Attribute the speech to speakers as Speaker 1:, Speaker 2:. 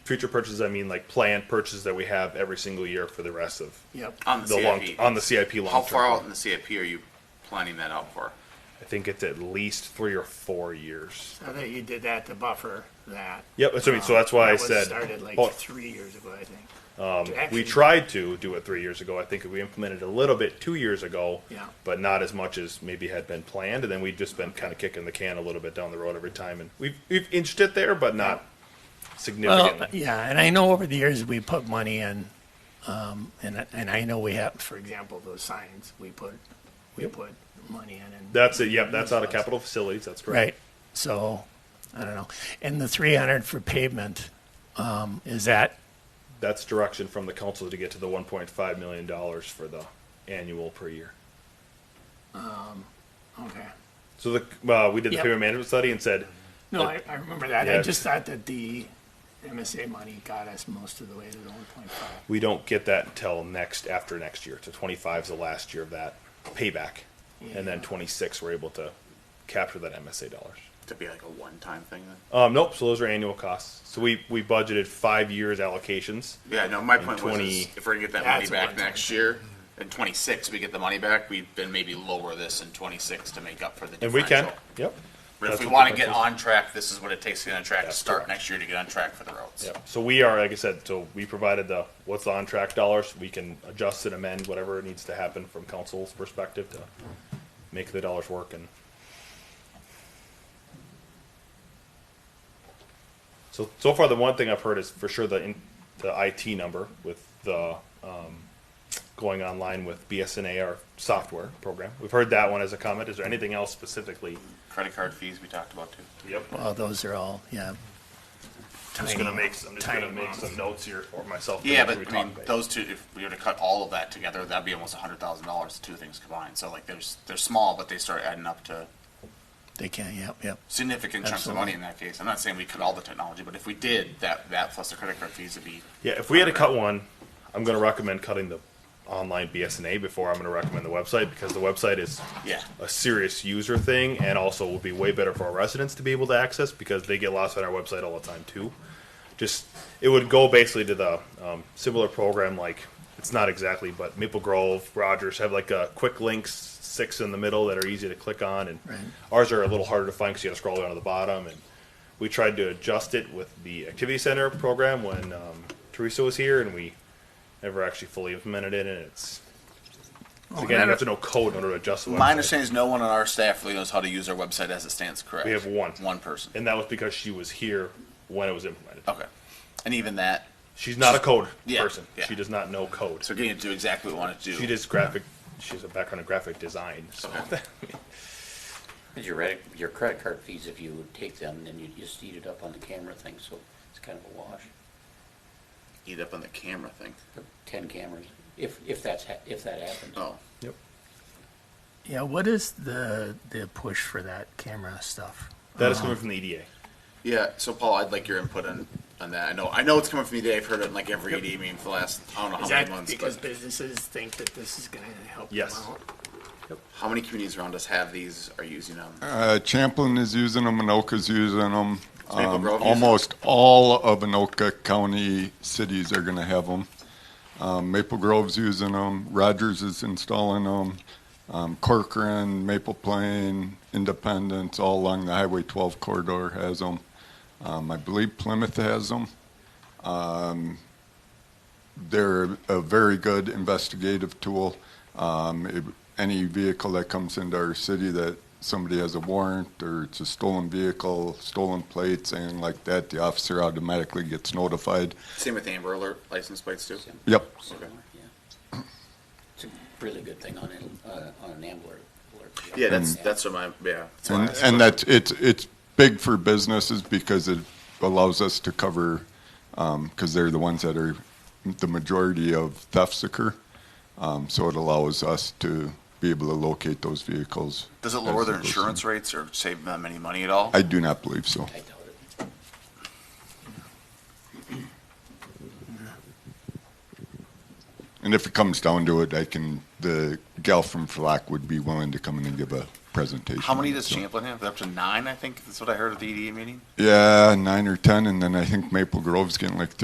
Speaker 1: future purchases, I mean like planned purchases that we have every single year for the rest of
Speaker 2: Yep.
Speaker 3: on the,
Speaker 1: the
Speaker 3: CIP.
Speaker 1: long on the CIP long
Speaker 3: How far
Speaker 1: term.
Speaker 3: out in the CIP are you planning that out for?
Speaker 1: I think it's at least three or four years.
Speaker 2: I think you did that to buffer that. Um,
Speaker 1: Yep, that's what I mean. So that's why I
Speaker 2: That was
Speaker 1: said-
Speaker 2: Started like
Speaker 1: Oh.
Speaker 2: three years ago, I think. Um,
Speaker 1: We tried to do it three years ago. I think we implemented a little bit two years ago,
Speaker 2: Yeah.
Speaker 1: but not as much as maybe had been planned. And then we've just been kind of kicking the can a little bit down the road every time, and we've we've inched it there, but not significantly.
Speaker 2: Well, yeah, and I know over the years we put money in, um, and, I- and I know we have, for example, those signs, we put, we put money in and.
Speaker 1: that's it. Yep, that's out of capital facilities. That's correct.
Speaker 2: Right, so, I don't know. And the three hundred for pavement, um, is that,
Speaker 1: That's direction from the council to get to the 1.5 million dollars for the annual per year.
Speaker 2: okay.
Speaker 1: So the uh, we did the
Speaker 2: Yep.
Speaker 1: payment management study and said
Speaker 2: No, I, I remember that. I
Speaker 1: Yeah.
Speaker 2: just thought that the MSA money got us most of the way to the one point five.
Speaker 1: we don't get that until next after next year. So 25 is the last year of that payback, and then
Speaker 2: Yeah.
Speaker 1: 26 we're able to capture that MSA dollars.
Speaker 3: To be like a one-time thing then?
Speaker 1: Um, nope. So those are annual costs. So we we budgeted five years allocations.
Speaker 3: Yeah, no, my point was
Speaker 1: 20
Speaker 3: is if we're gonna get that
Speaker 2: That's
Speaker 3: money
Speaker 2: a
Speaker 3: back
Speaker 2: one-time
Speaker 3: next year, in twenty-six, we get the money back, we then maybe lower this in twenty-six to make up for the
Speaker 1: And we
Speaker 3: differential.
Speaker 1: can, yep,
Speaker 3: But if
Speaker 1: That's
Speaker 3: we
Speaker 1: what
Speaker 3: wanna
Speaker 1: the
Speaker 3: get
Speaker 1: difference
Speaker 3: on track, this is what it takes to get on track, to
Speaker 1: That's
Speaker 3: start
Speaker 1: correct.
Speaker 3: next year to get on track for the roads.
Speaker 1: yep. So we are, like I said, so we provided the what's on track dollars. We can adjust and amend whatever needs to happen from council's perspective to make the dollars work. And so so far, the one thing I've heard is for sure the in, the IT number with the um, going online with BSNA our software program. We've heard that one as a comment. Is there anything else specifically?
Speaker 3: Credit card fees we talked about too.
Speaker 1: Yep.
Speaker 2: Well, those are all, yeah.
Speaker 1: I'm just gonna make, I'm just gonna
Speaker 2: Tiny
Speaker 1: make
Speaker 2: amounts.
Speaker 1: some notes here for myself. to
Speaker 3: Yeah,
Speaker 1: make sure
Speaker 3: but
Speaker 1: we
Speaker 3: I
Speaker 1: talk
Speaker 3: mean,
Speaker 1: about it.
Speaker 3: those two, if we were to cut all of that together, that'd be almost a hundred thousand dollars, the two things combined. So like, there's, they're small, but they start adding up to
Speaker 2: They can, yep, yep.
Speaker 3: significant chunks of
Speaker 2: Absolutely.
Speaker 3: money in that case. I'm not saying we cut all the technology, but if we did, that, that plus the credit card fees would be,
Speaker 1: Yeah, if we had to cut one, I'm gonna recommend cutting the online BSNA before I'm gonna recommend the website, because the website is
Speaker 3: yeah.
Speaker 1: a serious user thing, and also will be way better for our residents to be able to access, because they get lost on our website all the time too. Just, it would go basically to the, um, similar program like, it's not exactly, but Maple Grove, Rogers have like a quick links, six in the middle that are easy to click on, and
Speaker 2: Right.
Speaker 1: ours are a little harder to find, cause you gotta scroll down to the bottom, and we tried to adjust it with the activity center program when um, Teresa was here, and we never actually fully implemented it. And it's so again, you have to know code in order to adjust the
Speaker 3: My
Speaker 1: website.
Speaker 3: understanding Oh, is no one on our staff really knows how to use our website as it stands, correct?
Speaker 1: We have one.
Speaker 3: One person.
Speaker 1: and that was because she was here when it was implemented.
Speaker 3: Okay. And even that,
Speaker 1: She's not a code
Speaker 3: Yeah,
Speaker 1: person.
Speaker 3: yeah.
Speaker 1: She does not know code.
Speaker 3: so getting to do exactly what we want to do.
Speaker 1: she does graphic. She has a background in graphic design. So
Speaker 3: Okay.
Speaker 4: Your credit, your credit card fees, if you would take them, then you just eat it up on the camera thing, so it's kind of a wash.
Speaker 3: Eat up on the camera thing.
Speaker 4: Ten cameras, if, if that's, ha- if that happens.
Speaker 3: Oh,
Speaker 1: yep.
Speaker 2: Yeah, what is the, the push for that camera stuff?
Speaker 1: That is coming from the E EDA.
Speaker 3: yeah. So Paul, I'd like your input on, on that. I know, I know it's coming from you today. I've heard it in like every E ED meeting for the last, I don't know how
Speaker 2: Is
Speaker 3: many
Speaker 2: that
Speaker 3: months.
Speaker 2: because
Speaker 3: But
Speaker 2: businesses think that this is gonna help them
Speaker 1: Yes.
Speaker 2: out?
Speaker 3: how many communities around us have these, are using um, them?
Speaker 5: Uh, Champlin is using them, Anoka's using them.
Speaker 3: Maple
Speaker 5: Um,
Speaker 3: Grove uses 'em?
Speaker 5: almost all of Anoka County cities are going to have them. Um, Maple Grove's using them. Rogers is installing them. Um, Corcoran, Maple Plain, Independence, all along the Highway 12 corridor has them. Um, I believe Plymouth has them. They're a very good investigative tool. Um, it, any vehicle that comes into our city that somebody has a warrant or it's a stolen vehicle, stolen plates, anything like that, the officer automatically gets notified.
Speaker 3: Same with Amber Alert license plates too?
Speaker 4: Sim-
Speaker 5: Yep.
Speaker 4: similar, yeah. It's a really good thing on an, uh, on an Ambler alert.
Speaker 3: Yeah, that's,
Speaker 4: Mm.
Speaker 3: that's what my, yeah. that's why I
Speaker 5: And,
Speaker 3: asked
Speaker 5: and
Speaker 3: about
Speaker 5: that's, it's, it's big for businesses because it allows us to cover, because they're the ones that are, the majority of thefts occur. Um, so it allows us to be able to locate those vehicles.
Speaker 3: Does it lower
Speaker 5: as
Speaker 3: their
Speaker 5: goes in.
Speaker 3: insurance rates or save them any money at all?
Speaker 5: I do not believe so.
Speaker 4: I doubt it.
Speaker 5: And if it comes down to it, I can, the gal from Flack would be willing to come in and give a presentation.
Speaker 3: How many
Speaker 5: on it,
Speaker 3: does
Speaker 5: so.
Speaker 3: Champlin have? Up to nine, I think. That's what I heard at the EDA E meeting.
Speaker 5: Yeah, nine or 10, and then I think Maple Grove's getting like